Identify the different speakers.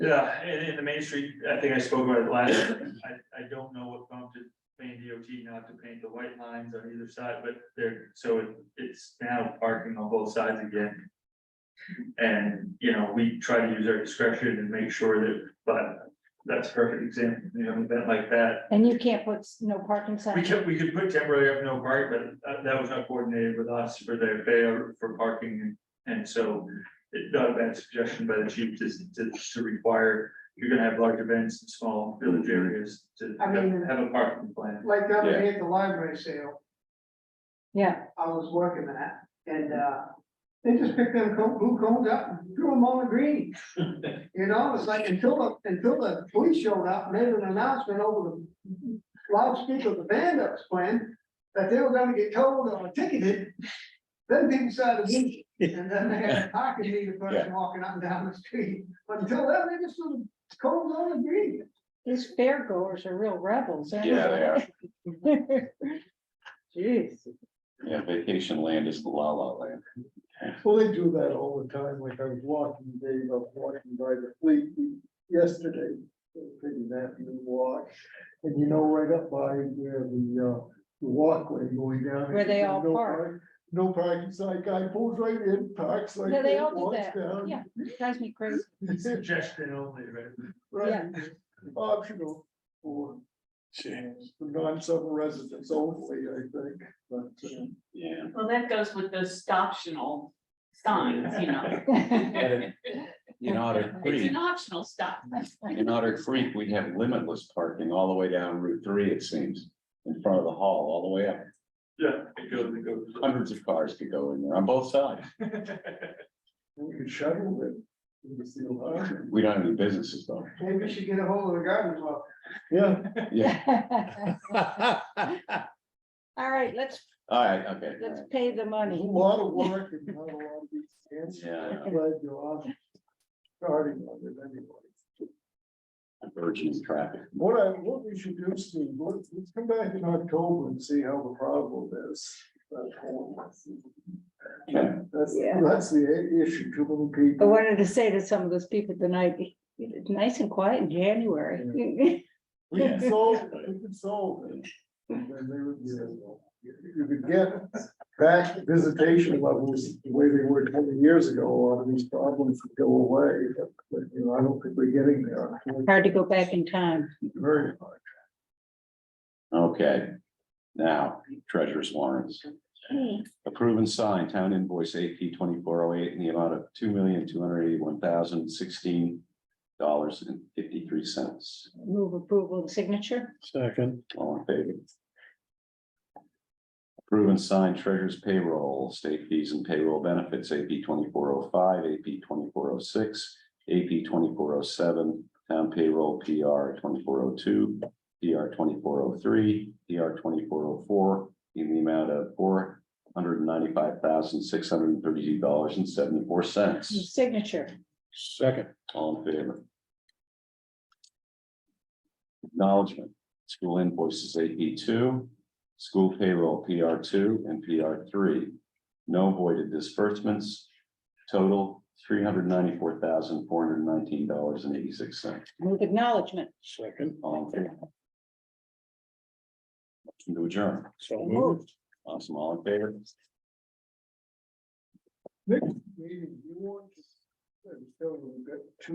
Speaker 1: Yeah, and in the Main Street, I think I spoke about it last, time. I, I don't know what prompted Maine DOT not to paint the white lines on either side, but they're, so it- it's now parking on both sides again. And, you know, we try to use our discretion and make sure that, but that's a perfect example, you know, an event like that.
Speaker 2: And you can't put s- no parking
Speaker 1: We
Speaker 2: sign.
Speaker 1: could, we could put temporary up no park, but that, that was not coordinated with us for their fair for parking. And so it's not a bad suggestion by the chief to, to, to require, you're gonna have large events in small village areas to
Speaker 3: I mean-
Speaker 1: have a parking plan.
Speaker 3: Like the other
Speaker 4: Yeah.
Speaker 3: day at the library sale,
Speaker 2: Yeah,
Speaker 3: I was working that, and, uh, they just picked them co- blue cones up and threw them on the green. You know, it's like until, the until the police showed up, made an announcement over the loudspeaker of the band that was playing, that they were gonna get told or ticketed. Then people started leaving, and then they had a parking meter person walking up and down the street, but until then, they just threw the cones on the green.
Speaker 2: these fairgoers are real rebels. aren't
Speaker 4: Yeah, they are.
Speaker 2: Jeez,
Speaker 4: Yeah, vacation land is the la la land.
Speaker 5: Well, they do that all the time, like I was walking, Dave, I was walking by the fleet yesterday, a pretty nasty walk. And you know, right up by where the, uh, the walkway going down.
Speaker 2: Where they all
Speaker 5: no
Speaker 2: park.
Speaker 5: park- No parking sign, guy pulls right in, parks like.
Speaker 2: Yeah, they all do
Speaker 5: walks
Speaker 2: that.
Speaker 5: down,
Speaker 2: yeah, drives me crazy.
Speaker 1: Suggestion only, right?
Speaker 5: Right, optional for uh, for non-summer residents only, I think, but. uh,
Speaker 4: Yeah.
Speaker 6: Well, that goes with those optional signs, you know,
Speaker 4: In Otter
Speaker 6: it's
Speaker 4: Creek,
Speaker 6: an optional stop.
Speaker 4: in Otter Creek, we have limitless parking all the way down Route three, it seems. In front of the hall, all the way up.
Speaker 1: Yeah, it goes, it goes.
Speaker 4: Hundreds of cars could go in there on both sides.
Speaker 5: We could shuttle it. in the sealed car.
Speaker 4: We don't have any businesses though.
Speaker 3: Maybe we should get a hold of the garden club.
Speaker 5: Yeah,
Speaker 4: Yeah.
Speaker 2: All right, let's,
Speaker 4: All right, okay. all
Speaker 2: let's
Speaker 4: right.
Speaker 2: pay the
Speaker 5: There's A
Speaker 2: money.
Speaker 5: lot of work and not a lot of these answers.
Speaker 4: Yeah.
Speaker 5: I'm Glad you're on, starting on it anyway.
Speaker 4: Virgin traffic.
Speaker 5: What I, what we should do, Steve, let's, let's come back in October and see how the problem is. That's all.
Speaker 4: Yeah.
Speaker 5: That's,
Speaker 2: Yeah. Oh,
Speaker 5: that's the i- issue, too many
Speaker 2: I
Speaker 5: people.
Speaker 2: wanted to say to some of those people tonight, it's nice and quiet in January.
Speaker 5: We can solve, it, we can solve it. And then they would, you know, You could get back visitation levels the way they were twenty years ago, a lot of these problems would go away. But, you know, I don't think we're getting there.
Speaker 2: Hard to go back in time.
Speaker 5: Very hard.
Speaker 4: Okay. Now, treasurer's warrants. Approve and sign town invoice AP twenty-four oh eight in the amount of two million, two hundred eighty-one thousand, sixteen dollars and fifty-three cents.
Speaker 2: Move approval and signature.
Speaker 5: Second.
Speaker 4: All in favor? Approve and sign treasurer's payroll, state fees and payroll benefits, AP twenty-four oh five, AP twenty-four oh six, AP twenty-four oh seven, town payroll PR twenty-four oh two, PR twenty-four oh three, PR twenty-four oh four, in the amount of four hundred and ninety-five thousand, six hundred and thirty-two dollars and seventy-four cents.
Speaker 2: Signature.
Speaker 4: Second. All in favor? Acknowledgement, school invoices AP two, school payroll PR two and PR three. No voided disbursements, total three hundred ninety-four thousand, four hundred nineteen dollars and eighty-six cents.
Speaker 2: Move acknowledgement.
Speaker 5: Second.
Speaker 4: All in favor? Motion to adjourn.
Speaker 5: So
Speaker 2: moved.
Speaker 4: Awesome, all in favor?
Speaker 5: Next meeting, you want to, I'm telling you, we've got two